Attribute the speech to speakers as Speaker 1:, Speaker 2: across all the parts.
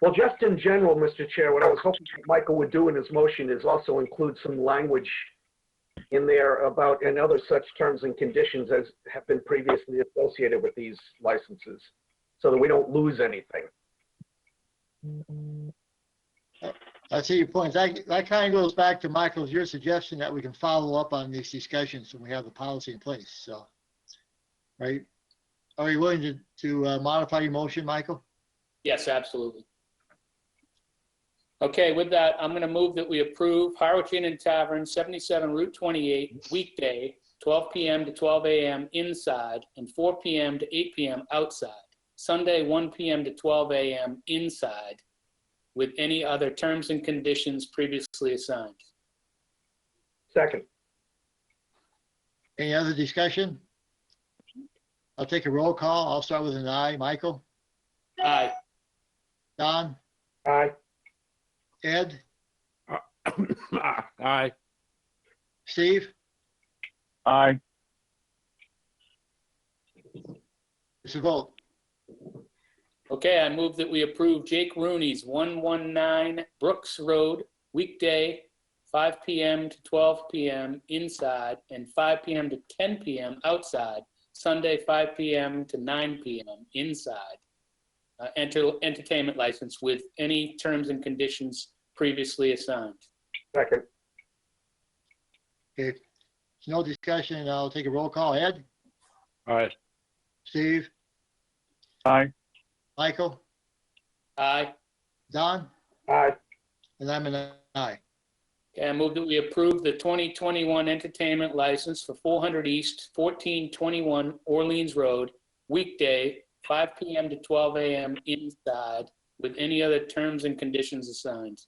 Speaker 1: Well, just in general, Mr. Chair, what I was hoping Michael would do in his motion is also include some language in there about, and other such terms and conditions as have been previously associated with these licenses, so that we don't lose anything.
Speaker 2: I see your points. That, that kind of goes back to Michael's, your suggestion that we can follow up on these discussions when we have the policy in place, so. Right? Are you willing to, to uh, modify your motion, Michael?
Speaker 3: Yes, absolutely. Okay, with that, I'm going to move that we approve Harwich Inn and Tavern, 77 Route 28, weekday, 12 PM to 12 AM inside and 4 PM to 8 PM outside. Sunday, 1 PM to 12 AM inside with any other terms and conditions previously assigned.
Speaker 1: Second,
Speaker 2: Any other discussion? I'll take a roll call. I'll start with an aye. Michael?
Speaker 3: Aye.
Speaker 2: Don?
Speaker 1: aye.
Speaker 2: Ed?
Speaker 4: Aye.
Speaker 2: Steve?
Speaker 4: Aye.
Speaker 2: It's a vote.
Speaker 3: Okay, I move that we approve Jake Rooney's 119 Brooks Road, weekday, 5 PM to 12 PM inside and 5 PM to 10 PM outside, Sunday, 5 PM to 9 PM inside. Uh, Enter Entertainment license with any terms and conditions previously assigned.
Speaker 1: Second,
Speaker 2: Okay. There's No discussion. I'll take a roll call. Ed?
Speaker 4: Aye.
Speaker 2: Steve?
Speaker 4: Aye.
Speaker 2: Michael?
Speaker 3: Aye.
Speaker 2: Don?
Speaker 1: aye.
Speaker 2: And I'm an aye.
Speaker 3: Okay, I move that we approve the 2021 entertainment license for 400 East, 1421 Orleans Road, weekday, 5 PM to 12 AM inside, with any other terms and conditions assigned.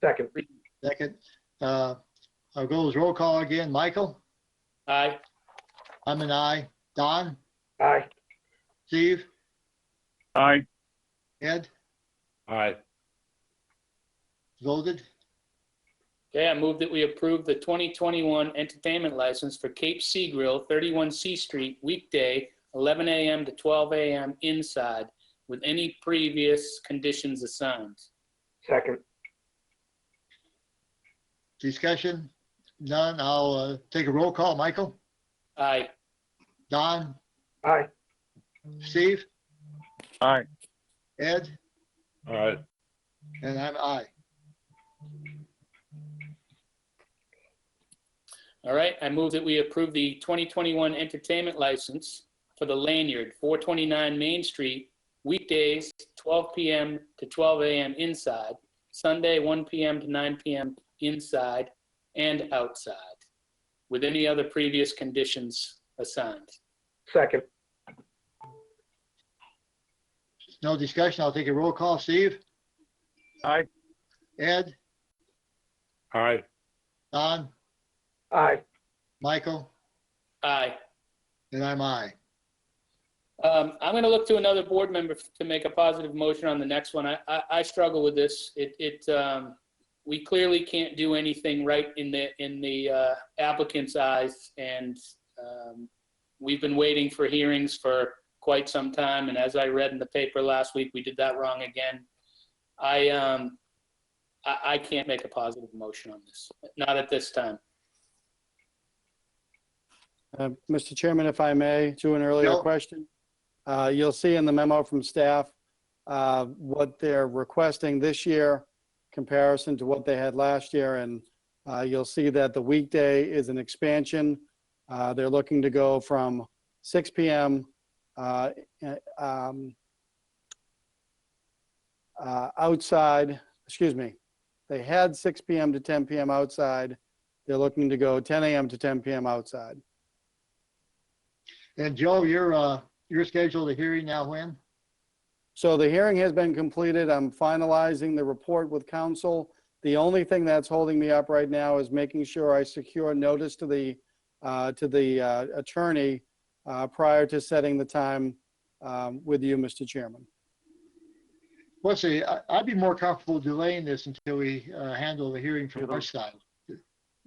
Speaker 1: Second,
Speaker 2: Second, uh, I'll go with roll call again. Michael?
Speaker 3: Aye.
Speaker 2: I'm an aye. Don?
Speaker 1: aye.
Speaker 2: Steve?
Speaker 4: Aye.
Speaker 2: Ed?
Speaker 4: Aye.
Speaker 2: Voted?
Speaker 3: Okay, I move that we approve the 2021 entertainment license for Cape Sea Grill, 31 C Street, weekday, 11 AM to 12 AM inside, with any previous conditions assigned.
Speaker 1: Second,
Speaker 2: Discussion? None. I'll, uh, take a roll call. Michael?
Speaker 3: Aye.
Speaker 2: Don?
Speaker 1: aye.
Speaker 2: Steve?
Speaker 4: Aye.
Speaker 2: Ed?
Speaker 4: Aye.
Speaker 2: And I'm aye.
Speaker 3: All right, I move that we approve the 2021 entertainment license for the Lanyard, 429 Main Street, weekdays, 12 PM to 12 AM inside, Sunday, 1 PM to 9 PM inside and outside, with any other previous conditions assigned.
Speaker 1: Second,
Speaker 2: No discussion. I'll take a roll call. Steve?
Speaker 4: Aye.
Speaker 2: Ed?
Speaker 4: Aye.
Speaker 2: Don?
Speaker 1: aye.
Speaker 2: Michael?
Speaker 3: Aye.
Speaker 2: And I'm aye.
Speaker 3: Um, I'm going to look to another board member to make a positive motion on the next one. I, I, I struggle with this. It, it, um, we clearly can't do anything right in the, in the uh, applicant's eyes. And, um, we've been waiting for hearings for quite some time. And as I read in the paper last week, we did that wrong again. I, um, I, I can't make a positive motion on this, not at this time.
Speaker 5: Uh, Mr. Chairman, if I may, to an earlier
Speaker 2: No.
Speaker 5: question. Uh, You'll see in the memo from staff uh, what they're requesting this year comparison to what they had last year. And uh, you'll see that the weekday is an expansion. Uh, They're looking to go from 6 PM uh, eh, um, uh, outside, excuse me, they had 6 PM to 10 PM outside. They're looking to go 10 AM to 10 PM outside.
Speaker 2: And Joe, you're, uh, you're scheduled to hearing now when?
Speaker 5: So the hearing has been completed. I'm finalizing the report with council. The only thing that's holding me up right now is making sure I secure notice to the, uh, to the uh, attorney uh, prior to setting the time um, with you, Mr. Chairman.
Speaker 2: Let's see, I, I'd be more comfortable delaying this until we, uh, handle the hearing from our side.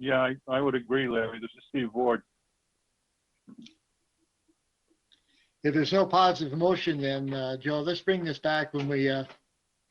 Speaker 6: Yeah, I, I would agree, Larry. This is Steve Ward.
Speaker 2: If there's no positive motion, then, uh, Joe, let's bring this back when we, uh,